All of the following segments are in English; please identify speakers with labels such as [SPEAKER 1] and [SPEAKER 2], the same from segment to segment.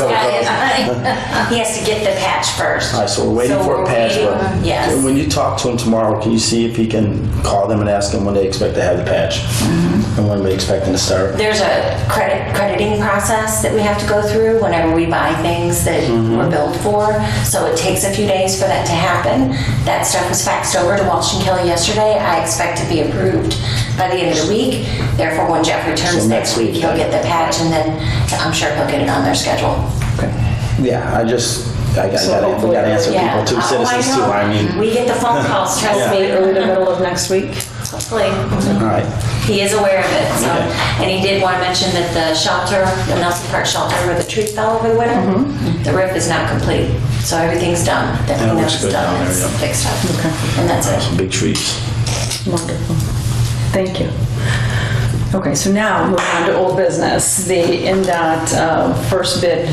[SPEAKER 1] He has to get the patch first.
[SPEAKER 2] All right, so we're waiting
[SPEAKER 1] So
[SPEAKER 2] for a
[SPEAKER 1] we're
[SPEAKER 2] patch.
[SPEAKER 1] waiting-
[SPEAKER 2] But
[SPEAKER 1] Yes.
[SPEAKER 2] When you talk to him tomorrow, can you see if he can call them and ask them when they expect to have the patch
[SPEAKER 1] Mm-hmm.
[SPEAKER 2] and when they expecting to start?
[SPEAKER 1] There's a credit, crediting process that we have to go through whenever we buy things that
[SPEAKER 2] Mm-hmm.
[SPEAKER 1] we're billed for. So it takes a few days for that to happen. That stuff was faxed over to Walsh and Kelly yesterday. I expect to be approved by the end of the week. Therefore, when Jeff returns
[SPEAKER 2] So
[SPEAKER 1] next
[SPEAKER 2] next
[SPEAKER 1] week,
[SPEAKER 2] week,
[SPEAKER 1] he'll
[SPEAKER 2] then.
[SPEAKER 1] get the patch and then I'm sure he'll get it on their schedule.
[SPEAKER 2] Yeah, I just I got,
[SPEAKER 3] So
[SPEAKER 2] gotta, we
[SPEAKER 3] hopefully-
[SPEAKER 2] gotta answer
[SPEAKER 1] Yeah. Mm-hmm.
[SPEAKER 2] people too,
[SPEAKER 1] Oh,
[SPEAKER 2] citizens too.
[SPEAKER 1] know.
[SPEAKER 2] I mean,
[SPEAKER 1] We get the phone calls, trust
[SPEAKER 3] Maybe
[SPEAKER 1] me.
[SPEAKER 3] early to middle of next week.
[SPEAKER 1] Hopefully.
[SPEAKER 2] all right.
[SPEAKER 1] He is aware of it, so,
[SPEAKER 2] Okay.
[SPEAKER 1] and he did want to mention that the shelter, the Nelson Park shelter where the tree fell over the winter, the roof is not complete, so everything's done, that
[SPEAKER 2] Mm-hmm. That
[SPEAKER 1] cleanup's
[SPEAKER 2] looks good down
[SPEAKER 1] done,
[SPEAKER 2] there,
[SPEAKER 1] it's
[SPEAKER 2] yeah.
[SPEAKER 1] fixed up, and that's it.
[SPEAKER 2] Some big trees.
[SPEAKER 3] Wonderful. Thank you. Okay, so now moving on to old business, the NDOT uh, first bid,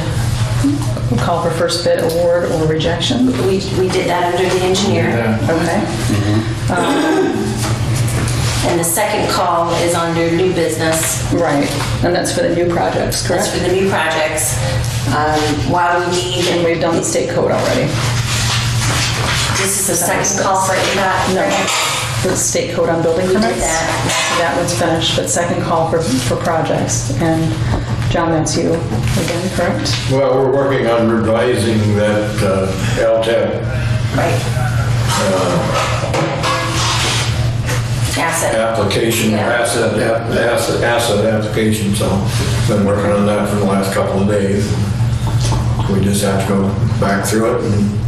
[SPEAKER 3] call for first bid award or rejection.
[SPEAKER 1] We, we did that under the engineer,
[SPEAKER 3] Okay,
[SPEAKER 1] and the second call is under new business,
[SPEAKER 3] right. And that's for the new projects,
[SPEAKER 1] that's
[SPEAKER 3] correct?
[SPEAKER 1] for the new projects. Um, While we need,
[SPEAKER 3] And we've done the state code already.
[SPEAKER 1] this is the second call for ADOT.
[SPEAKER 3] No, the state code on building
[SPEAKER 1] did
[SPEAKER 3] permits.
[SPEAKER 1] that.
[SPEAKER 3] So That one's finished, but second call for, for projects. And John, that's you again, correct?
[SPEAKER 4] Well, we're working on revising that uh, LTAP
[SPEAKER 1] Right.
[SPEAKER 2] Uh,
[SPEAKER 1] Asset.
[SPEAKER 4] application,
[SPEAKER 1] Yeah.
[SPEAKER 4] asset, app- asset, asset application, so been working on that for the last couple of days. We just have to go back through it and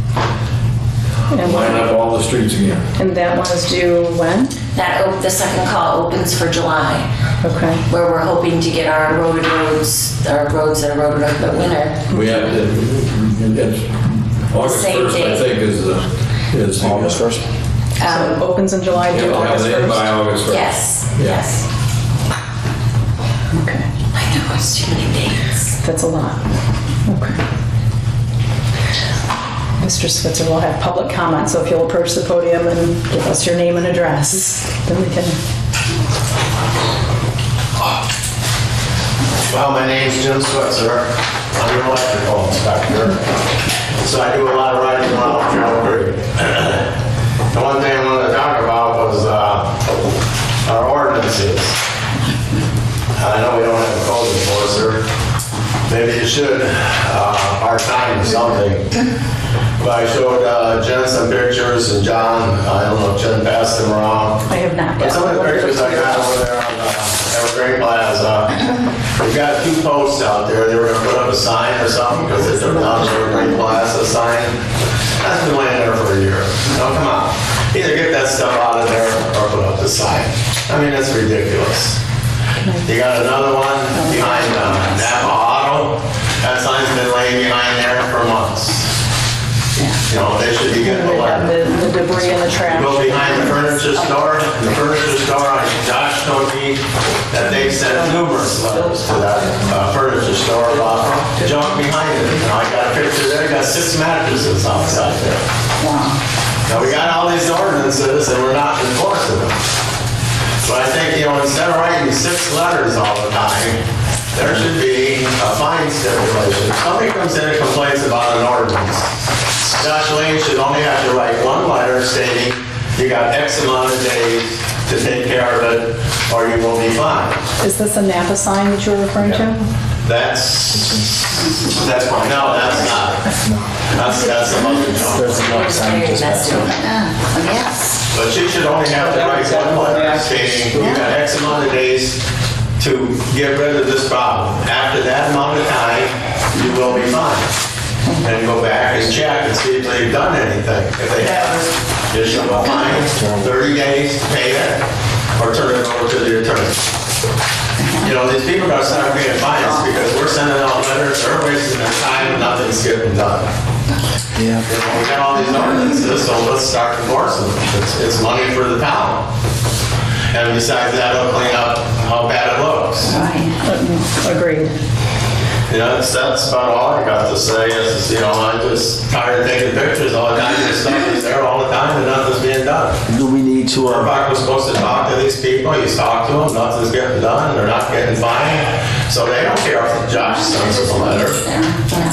[SPEAKER 3] And
[SPEAKER 4] line
[SPEAKER 3] what-
[SPEAKER 4] up all the streets again.
[SPEAKER 3] and that one is due when?
[SPEAKER 1] That, op- the second call opens for July.
[SPEAKER 3] Okay.
[SPEAKER 1] where we're hoping to get our roaded roads, our roads that are roaded over the winter.
[SPEAKER 4] We have, to- it's August
[SPEAKER 1] Same
[SPEAKER 4] 1st, I
[SPEAKER 1] day.
[SPEAKER 4] think, is, the- is. the-
[SPEAKER 2] August first.
[SPEAKER 3] So it opens in July,
[SPEAKER 4] We
[SPEAKER 3] due
[SPEAKER 4] have to have
[SPEAKER 3] August
[SPEAKER 4] it in by
[SPEAKER 3] 1st?
[SPEAKER 4] August 1st.
[SPEAKER 1] Yes,
[SPEAKER 4] Yeah.
[SPEAKER 1] yes.
[SPEAKER 3] Okay,
[SPEAKER 1] I know, it's too many dates.
[SPEAKER 3] that's a lot. Okay. Mr. Switzer will have public comment, so if you'll approach the podium and give us your name and address, then we can,
[SPEAKER 5] Well, my name's Jim Switzer. I'm an electrical inspector. So I do a lot of writing around Calgary. The one thing I wanted to talk about was uh, our ordinances. I know we don't have a code enforcer. Maybe you should uh, part-time or something. But I showed uh, Jen some pictures and John, I don't know if Jen passed them around.
[SPEAKER 3] I have not.
[SPEAKER 5] Some of the pictures I got over there on uh, Evergreen Plaza, uh, we've got a few posts out there, they were gonna put up a sign or something, because they took down the Evergreen Plaza sign. That's been laying there for a year. Now, come on, either get that stuff out of there or put up the sign. I mean, that's ridiculous. You got another one behind uh, Napa Auto, that sign's been laying behind there for months. You know, they should be getting
[SPEAKER 3] And
[SPEAKER 5] a
[SPEAKER 3] we have
[SPEAKER 5] letter.
[SPEAKER 3] the the debris and the trash.
[SPEAKER 5] Go behind the furniture store, the furniture store, I- Josh told me that they've sent numerous letters to that uh, furniture store about junk behind it. Now, I got a picture there, got six mattresses outside there. Now, we got all these ordinances and we're not enforcing them. So I think, you know, instead of writing six letters all the time, there should be a fine stipulation. If Somebody comes in and complains about an ordinance. Josh Lane should only have to write one letter stating, you got X amount of days to take care of it, or you will be fined.
[SPEAKER 3] Is this the Napa sign that you're referring to?
[SPEAKER 5] That's, that's my, no, that's not. That's, that's a month ago.
[SPEAKER 6] Yes.
[SPEAKER 5] But you should only have to write one letter stating, you got X amount of days to get rid of this problem. After that amount of time, you will be fined. And go back and check and see if they've done anything. If they haven't, issue a fine, 30 days, pay it, or turn it over to the attorney. You know, these people gotta start paying fines because we're sending out letters, they're wasting their time, and nothing's getting done.
[SPEAKER 2] Yeah.
[SPEAKER 5] You know, We got all these ordinances, so let's start enforcing them. It's, it's money for the town. And besides that, it'll clean up how bad it looks.
[SPEAKER 3] Agreed.
[SPEAKER 5] You know, that's, that's about all I got to say is, you know, I'm just tired of taking pictures all the time. This stuff is there all the time and nothing's being done.
[SPEAKER 2] Do we need to? Uh,
[SPEAKER 5] Burbach was supposed to talk to these people, he's talked to them, nothing's getting done, they're not getting fined. So they don't care if Josh sends us a letter.
[SPEAKER 6] Yeah.